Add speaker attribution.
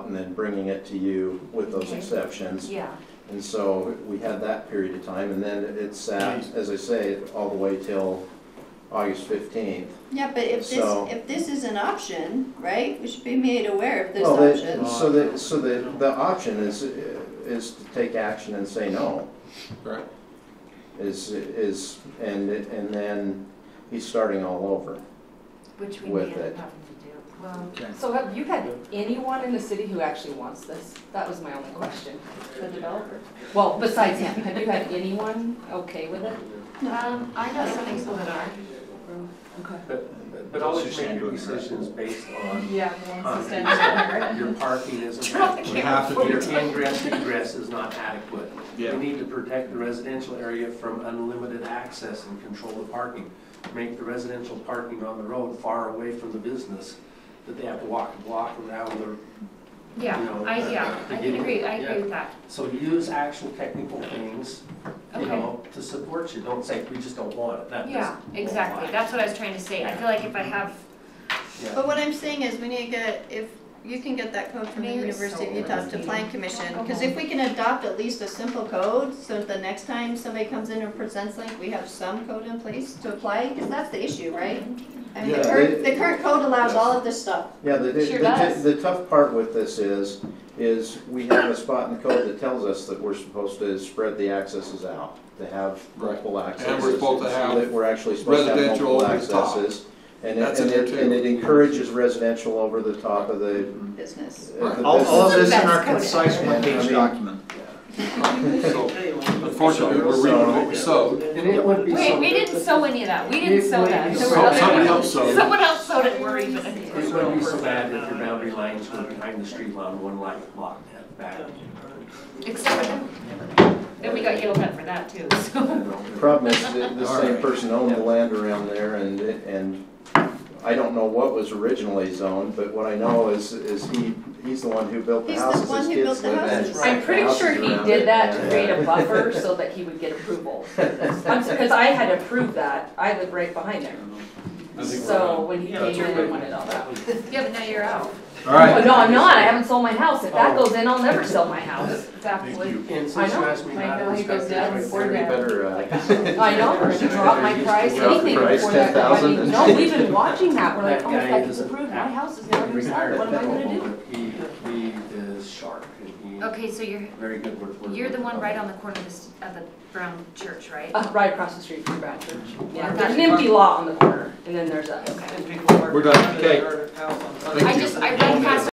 Speaker 1: and then bringing it to you with those
Speaker 2: Okay.
Speaker 1: exceptions.
Speaker 2: Yeah,
Speaker 1: And so we had that period of time, and then it sat, as I say, all the way till August fifteenth.
Speaker 3: Yeah, but if
Speaker 1: So-
Speaker 3: this, if this is an option, right, we should be made aware of this
Speaker 1: Well, they-
Speaker 3: option.
Speaker 1: So the, so the, the option is, is to take action and say no.
Speaker 4: Right.
Speaker 1: Is, is, and, and then he's starting all over.
Speaker 2: which we
Speaker 1: With
Speaker 2: may end
Speaker 1: it.
Speaker 2: up having to do. Well,
Speaker 4: Okay.
Speaker 5: So have you had anyone in the city who actually wants this? That was my only question.
Speaker 2: the developer.
Speaker 5: Well, besides him, have you had anyone okay with it?
Speaker 2: Um, I know some people that are.
Speaker 5: Okay.
Speaker 6: But- But always make your decisions based on
Speaker 5: Yeah.
Speaker 6: context. Your parking isn't adequate.
Speaker 4: We have to
Speaker 6: Your
Speaker 4: do it.
Speaker 6: ingress egress is not adequate. We
Speaker 4: Yeah.
Speaker 6: need to protect the residential area from unlimited access and control the parking. Make the residential parking on the road far away from the business, that they have to walk a block around the
Speaker 2: Yeah,
Speaker 6: No,
Speaker 2: I, yeah,
Speaker 6: to
Speaker 2: I
Speaker 6: give
Speaker 2: can agree, I
Speaker 6: yeah.
Speaker 2: agree with that.
Speaker 6: So use actual technical things, you
Speaker 2: Okay.
Speaker 6: know, to support you, don't say, we just don't want it, that doesn't.
Speaker 2: Yeah, exactly.
Speaker 6: apply.
Speaker 2: That's what I was trying to say. I feel like if I have,
Speaker 6: Yeah.
Speaker 3: But what I'm saying is, we need to get, if you can get that code from the
Speaker 2: Maybe it's
Speaker 3: University of
Speaker 2: so
Speaker 3: Utah to
Speaker 2: overrated.
Speaker 3: Plan Commission, because if we can adopt at least a simple code, so the next time somebody comes in and presents like, we have some code in place to apply, because that's the issue, right? I mean, the
Speaker 1: Yeah,
Speaker 3: current,
Speaker 1: they-
Speaker 3: the current code allows all of this stuff.
Speaker 1: Yeah, the, the-
Speaker 5: Sure
Speaker 1: the,
Speaker 5: does.
Speaker 1: the tough part with this is, is we have a spot in the code that tells us that we're supposed to spread the accesses out, to have multiple accesses.
Speaker 4: And we're supposed to have
Speaker 1: That we're actually supposed to have
Speaker 4: residential
Speaker 1: multiple
Speaker 4: over the top.
Speaker 1: accesses. And it,
Speaker 4: That's in
Speaker 1: and it,
Speaker 4: there
Speaker 1: and
Speaker 4: too.
Speaker 1: it encourages residential over the top of the.
Speaker 3: business.
Speaker 1: of the
Speaker 7: All, all of
Speaker 1: business.
Speaker 7: this in our
Speaker 2: That's coded.
Speaker 7: concise
Speaker 1: I
Speaker 7: one-page
Speaker 1: mean-
Speaker 7: document.
Speaker 4: So Unfortunately, we're reaping what we sowed.
Speaker 6: And it would be
Speaker 2: wait, we
Speaker 6: something-
Speaker 2: didn't sow any of that. We didn't sow that. There were
Speaker 4: So-
Speaker 2: other
Speaker 4: somebody
Speaker 2: people-
Speaker 4: else sowed.
Speaker 2: Someone else sowed it, we're even.
Speaker 6: It wouldn't be so bad if your boundary lines were behind the street line, one light block that back.
Speaker 2: Except for them. Then we got yelled at for that too, so.
Speaker 1: The Problem is, that the
Speaker 4: All
Speaker 1: same
Speaker 4: right.
Speaker 1: person owned the land around there and, it- and I don't know what was originally zoned, but what I know is, is he, he's the one who built the
Speaker 3: He's the
Speaker 1: houses
Speaker 3: one
Speaker 1: his
Speaker 3: who
Speaker 1: kids
Speaker 3: built the
Speaker 1: live in.
Speaker 3: houses.
Speaker 5: I'm pretty sure he
Speaker 1: Houses
Speaker 5: did that to
Speaker 1: around it.
Speaker 5: create a buffer so that he would get approval. Because I had approved that, I live right behind him. So when he
Speaker 6: Yeah,
Speaker 5: came
Speaker 6: that's
Speaker 5: in
Speaker 6: right.
Speaker 5: and wanted all that. Oh,
Speaker 2: Yeah, but now you're out.
Speaker 4: All right,
Speaker 5: No, I'm not, I haven't sold my house, if that
Speaker 6: Oh.
Speaker 5: goes in, I'll never sell my house.
Speaker 2: Exactly.
Speaker 6: And since you asked me
Speaker 5: I know,
Speaker 6: not
Speaker 5: I
Speaker 6: to
Speaker 5: know, he
Speaker 6: discuss
Speaker 5: goes
Speaker 6: this
Speaker 5: down
Speaker 6: right
Speaker 5: before
Speaker 6: there,
Speaker 1: We better, uh,
Speaker 5: I know, we're gonna drop my price,
Speaker 1: Drop the
Speaker 5: anything
Speaker 1: price,
Speaker 5: before that, I
Speaker 1: 10,000
Speaker 5: mean,
Speaker 1: and-
Speaker 5: no, we've been watching that, we're like,
Speaker 6: That
Speaker 5: oh,
Speaker 6: guy
Speaker 5: that
Speaker 6: is
Speaker 5: is
Speaker 6: a-
Speaker 5: approved, my house is never for
Speaker 6: retired
Speaker 5: sale, what am I gonna do?
Speaker 6: He, he is sharp and he,
Speaker 2: Okay, so you're,
Speaker 6: very good with words.
Speaker 2: you're the one right on the corner of this, of the brown church, right?
Speaker 5: Uh, right across the street from Brad Church, yeah,
Speaker 2: Yeah.
Speaker 5: there's an empty lot on the corner, and then there's us.
Speaker 2: Okay.
Speaker 4: we're done, okay.
Speaker 2: I just, I ran past